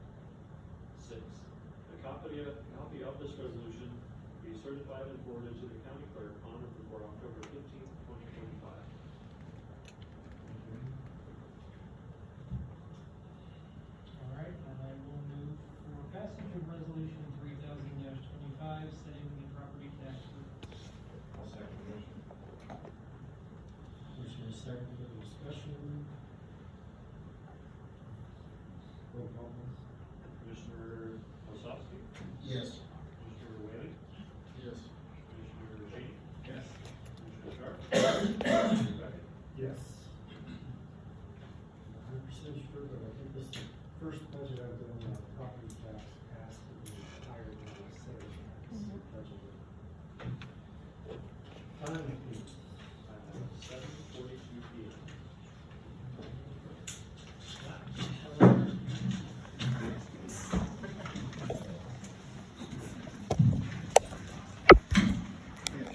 six, a copy of, copy of this resolution be certified and forwarded to the county clerk on or before October fifteenth, twenty twenty-five.